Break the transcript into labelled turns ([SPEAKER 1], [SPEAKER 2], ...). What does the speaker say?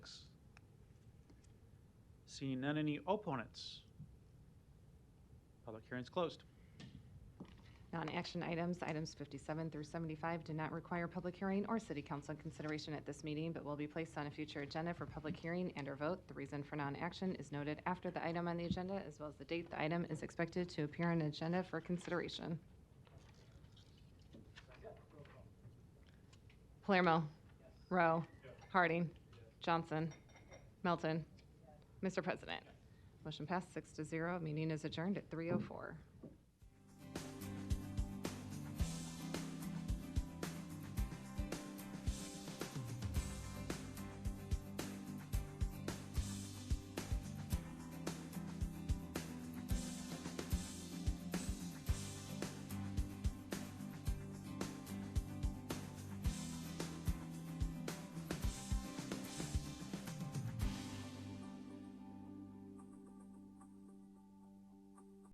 [SPEAKER 1] Seeing none, any opponents? Public hearing's closed.
[SPEAKER 2] Non-action items, items 57 through 75, do not require public hearing or city council consideration at this meeting, but will be placed on a future agenda for public hearing and/or vote. The reason for non-action is noted after the item on the agenda, as well as the date the item is expected to appear on the agenda for consideration. Palermo. Rowe. Harding. Johnson. Melton. oh Mr. President. Motion passed six to zero. Meeting is adjourned at 3:04.